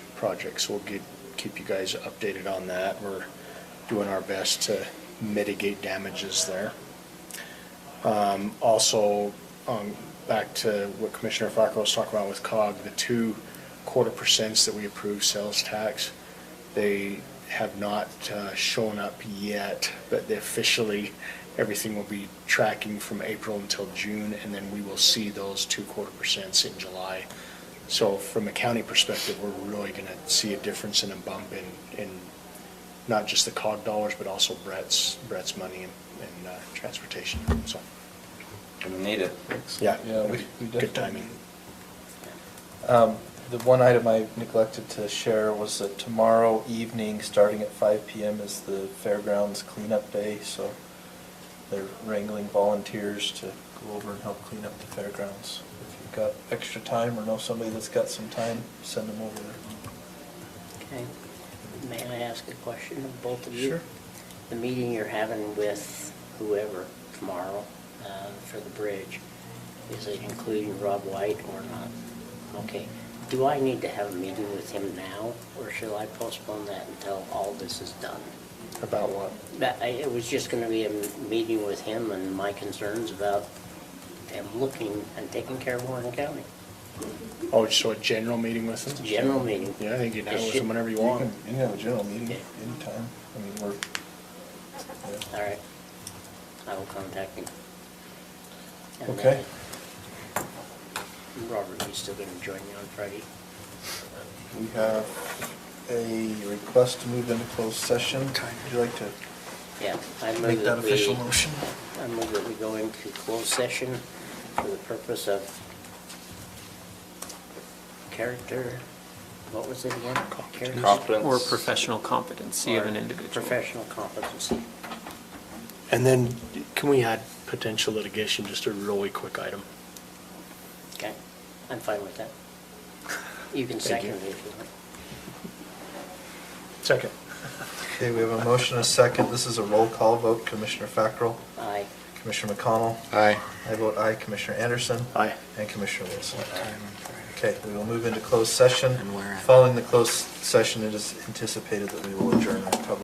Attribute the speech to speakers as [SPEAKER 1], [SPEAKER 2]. [SPEAKER 1] projects. We'll get, keep you guys updated on that. We're doing our best to mitigate damages there. Um, Also, um, back to what Commissioner Farco was talking about with COG, the two quarter percents that we approve sales tax, they have not uh, shown up yet, but they officially, everything will be tracking from April until June, and then we will see those two quarter percents in July. So from a county perspective, we're really going to see a difference and a bump in, in not just the COG dollars, but also Brett's, Brett's money and, and uh, transportation, so,
[SPEAKER 2] We need it.
[SPEAKER 1] yeah.
[SPEAKER 3] Yeah, we- we
[SPEAKER 1] Good
[SPEAKER 3] definitely-
[SPEAKER 1] timing.
[SPEAKER 3] Um, The one item I neglected to share was that tomorrow evening, starting at five PM, is the fairgrounds cleanup day, so they're wrangling volunteers to go over and help clean up the fairgrounds. If you've got extra time or know somebody that's got some time, send them over there.
[SPEAKER 4] Okay. May I ask a question of both of you?
[SPEAKER 3] Sure.
[SPEAKER 4] The meeting you're having with whoever tomorrow uh, for the bridge, is it including Rob White or not? Okay. Do I need to have a meeting with him now, or shall I postpone that until all this is done?
[SPEAKER 1] About what?
[SPEAKER 4] That- I- It was just going to be a m- meeting with him and my concerns about them looking and taking care of Warren County.
[SPEAKER 1] Oh, so a general meeting with them?
[SPEAKER 4] General meeting.
[SPEAKER 1] Yeah, I think you can have
[SPEAKER 4] It
[SPEAKER 1] with
[SPEAKER 4] should-
[SPEAKER 1] them whenever you want.
[SPEAKER 3] can- You can have a general meeting
[SPEAKER 4] Okay.
[SPEAKER 3] anytime. I mean, we're, yeah.
[SPEAKER 4] All right. I will contact him. And then-
[SPEAKER 3] Okay.
[SPEAKER 4] Robert, you still gonna join me on Friday?
[SPEAKER 3] We have a request to move into closed session. Would you like to
[SPEAKER 4] Yeah. I move
[SPEAKER 3] make that
[SPEAKER 4] we-
[SPEAKER 3] official motion?
[SPEAKER 4] I move that we go into closed session for the purpose of character, what was it again? Character-
[SPEAKER 2] Competence.
[SPEAKER 5] Or professional competency of an individual.
[SPEAKER 4] Professional competency.
[SPEAKER 1] And then, can we add potential litigation, just a really quick item?
[SPEAKER 4] Okay, I'm fine with that. You can
[SPEAKER 1] Thank
[SPEAKER 4] second
[SPEAKER 1] you.
[SPEAKER 4] it if you want.
[SPEAKER 1] Second.
[SPEAKER 3] Okay, we have a motion, and a second. This is a roll call vote. Commissioner Fackrell,
[SPEAKER 4] Aye.
[SPEAKER 3] Commissioner McConnell.
[SPEAKER 1] Aye.
[SPEAKER 3] I vote aye. Commissioner Anderson.
[SPEAKER 1] Aye.
[SPEAKER 3] And Commissioner Wilson.
[SPEAKER 1] Aye.
[SPEAKER 3] Okay, we will move into closed session.
[SPEAKER 1] And where at?
[SPEAKER 3] Following the closed session, it is anticipated that we will adjourn our public